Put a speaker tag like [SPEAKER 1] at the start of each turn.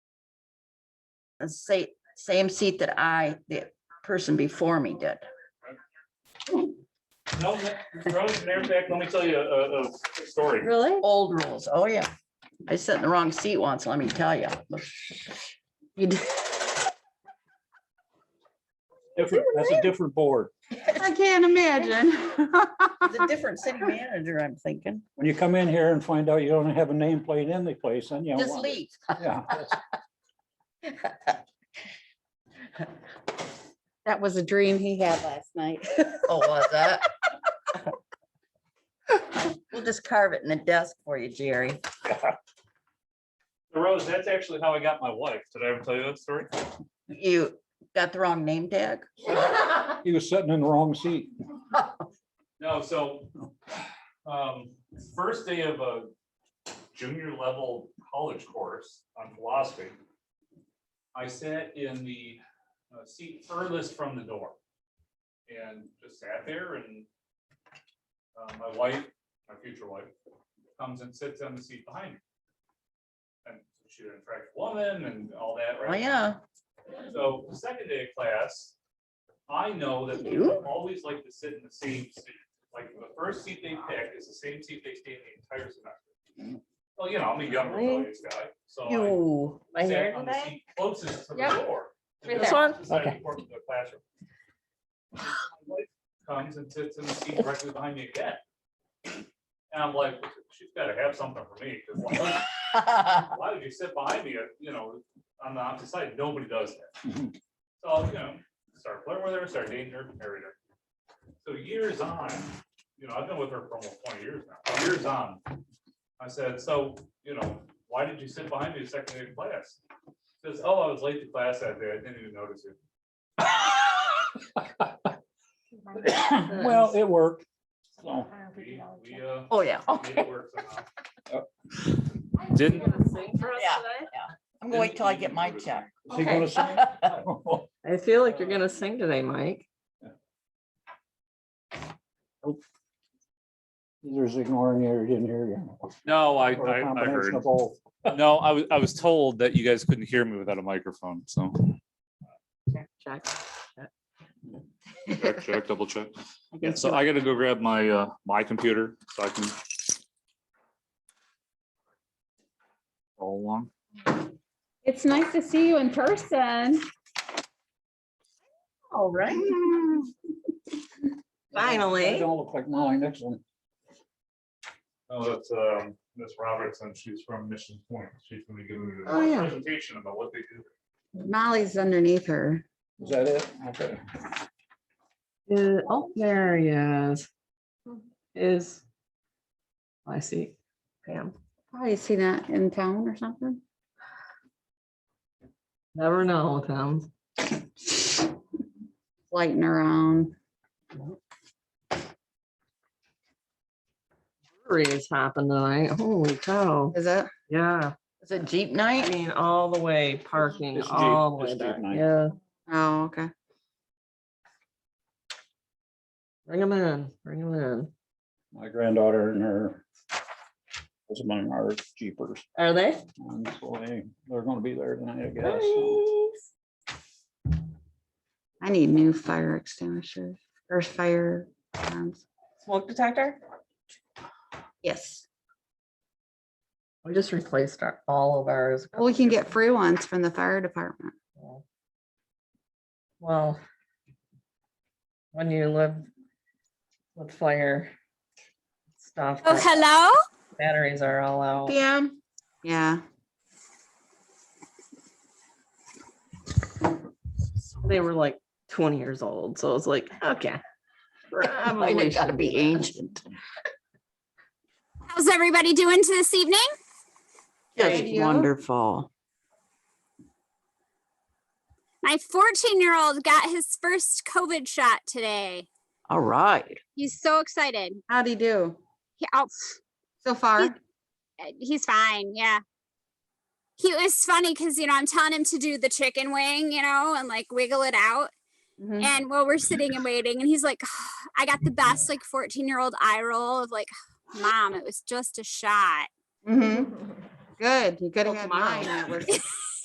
[SPEAKER 1] the same, same seat that I, the person before me did.
[SPEAKER 2] No, Rose, matter of fact, let me tell you a, a a story.
[SPEAKER 1] Really? Old rules, oh yeah. I sat in the wrong seat once, let me tell you. You did.
[SPEAKER 3] Different, that's a different board.
[SPEAKER 4] I can't imagine.
[SPEAKER 1] The different city manager, I'm thinking.
[SPEAKER 3] When you come in here and find out you don't have a nameplate in the place, then you. don't
[SPEAKER 1] Just
[SPEAKER 3] want it.
[SPEAKER 1] leave.
[SPEAKER 3] Yeah, that's-
[SPEAKER 4] That was a dream he had last night.
[SPEAKER 1] Oh, was that? We'll just carve it in the desk for you, Jerry.
[SPEAKER 2] Rose, that's actually how I got my wife. Did I ever tell you that story?
[SPEAKER 1] You got the wrong name tag?
[SPEAKER 3] He was sitting in the wrong seat.
[SPEAKER 2] No, so, um, first day of a junior level college course on philosophy. I sat in the uh, seat furthest from the door. And just sat there and, uh, my wife, my future wife, comes and sits on the seat behind me. And she's an attractive woman and all that,
[SPEAKER 1] Oh,
[SPEAKER 2] right?
[SPEAKER 1] yeah.
[SPEAKER 2] So the second day of class, I know that
[SPEAKER 1] You?
[SPEAKER 2] people always like to sit in the same seat. Like the first seat they pick is the same seat they stay in the entire semester. Well, you know, I'm a young
[SPEAKER 1] Really?
[SPEAKER 2] rebellious guy, so
[SPEAKER 1] You.
[SPEAKER 2] I sat on the seat closest to the
[SPEAKER 4] Yep.
[SPEAKER 2] door.
[SPEAKER 4] Right
[SPEAKER 2] Just
[SPEAKER 1] there.
[SPEAKER 2] beside the
[SPEAKER 3] Okay.
[SPEAKER 2] door to the classroom. My wife Comes and sits in the seat directly behind me again. And I'm like, she's gotta have something for me, 'cause why- why would you sit behind me, uh, you know, on the opposite side? Nobody does that.
[SPEAKER 3] Mhm.
[SPEAKER 2] So, you know, start flirting with her, start dating her, married her. So years on, you know, I've been with her for almost twenty years now, years on. I said, so, you know, why did you sit behind me the second day of class? She Says, oh, I was late to class that day. I didn't even notice you.
[SPEAKER 3] Well, it worked. So,
[SPEAKER 2] We, we, uh,
[SPEAKER 1] Oh, yeah.
[SPEAKER 2] made it work somehow.
[SPEAKER 3] Didn't-
[SPEAKER 1] Yeah. I'm gonna wait till I get my check.
[SPEAKER 3] is he gonna sing? Oh,
[SPEAKER 5] I feel like you're gonna sing today, Mike.
[SPEAKER 3] There's ignoring you, or didn't hear you.
[SPEAKER 2] No, I,
[SPEAKER 3] Or a
[SPEAKER 2] I, I heard.
[SPEAKER 3] combination of both.
[SPEAKER 2] No, I was, I was told that you guys couldn't hear me without a microphone, so.
[SPEAKER 5] Check, check.
[SPEAKER 2] Check, check, double check. Yeah, so I gotta go grab my, uh, my computer so I can. All along.
[SPEAKER 4] It's nice to see you in person.
[SPEAKER 1] All right.
[SPEAKER 3] I
[SPEAKER 5] Finally.
[SPEAKER 3] Don't look like Molly Nixon.
[SPEAKER 2] Oh, that's, um, Miss Robertson. She's from Mission Point. She's gonna give me
[SPEAKER 5] Oh,
[SPEAKER 2] a
[SPEAKER 5] yeah.
[SPEAKER 2] presentation about what they do.
[SPEAKER 4] Molly's underneath her.
[SPEAKER 3] Is that it? Okay.
[SPEAKER 5] Uh, Oh, there he is. Is. I see. Pam,
[SPEAKER 4] Probably see that in town or something.
[SPEAKER 5] never know with him.
[SPEAKER 4] Lighting around.
[SPEAKER 5] Brewery is happening tonight. Holy cow.
[SPEAKER 1] Is it,
[SPEAKER 5] Yeah,
[SPEAKER 1] is it Jeep
[SPEAKER 5] I
[SPEAKER 1] night?
[SPEAKER 5] mean, all the way parking,
[SPEAKER 3] It's deep-
[SPEAKER 5] all the way
[SPEAKER 3] it's deep
[SPEAKER 5] back.
[SPEAKER 3] night.
[SPEAKER 5] Yeah,
[SPEAKER 4] Oh, okay.
[SPEAKER 5] bring them in, bring them in.
[SPEAKER 3] My granddaughter and her was among our jeepers.
[SPEAKER 5] Are they?
[SPEAKER 3] And so they, they're gonna be there tonight, I guess. so.
[SPEAKER 5] Nice.
[SPEAKER 4] I need new fire extinguishers or fire alarms.
[SPEAKER 6] Smoke detector?
[SPEAKER 4] Yes.
[SPEAKER 5] We just replaced our, all of ours.
[SPEAKER 4] Well, we can get free ones from the fire department.
[SPEAKER 5] Well, when you live with fire stuff,
[SPEAKER 6] Oh,
[SPEAKER 5] the
[SPEAKER 6] hello?
[SPEAKER 5] batteries are all out.
[SPEAKER 1] PM?
[SPEAKER 4] Yeah.
[SPEAKER 5] They were like twenty years old, so it's like, okay.
[SPEAKER 4] Oh,
[SPEAKER 1] Mine
[SPEAKER 5] Probably
[SPEAKER 1] have gotta
[SPEAKER 5] should
[SPEAKER 1] be
[SPEAKER 5] that.
[SPEAKER 1] ancient.
[SPEAKER 6] How's everybody doing to this evening?
[SPEAKER 1] Just wonderful.
[SPEAKER 6] My 14 year old got his first COVID shot today.
[SPEAKER 1] All right.
[SPEAKER 6] He's so excited.
[SPEAKER 4] How'd he do
[SPEAKER 6] He, oh,
[SPEAKER 4] so far?
[SPEAKER 6] uh, he's fine. Yeah. He it was funny because, you know, I'm telling him to do the chicken wing, you know, and like wiggle it out.
[SPEAKER 4] Mhm.
[SPEAKER 6] And while we're sitting and waiting, and he's like, I got the best like 14 year old eye roll of like, mom, it was just a shot.
[SPEAKER 4] Mhm. Good. You could have
[SPEAKER 5] Oh,
[SPEAKER 4] had
[SPEAKER 5] tomorrow.
[SPEAKER 4] mine. That was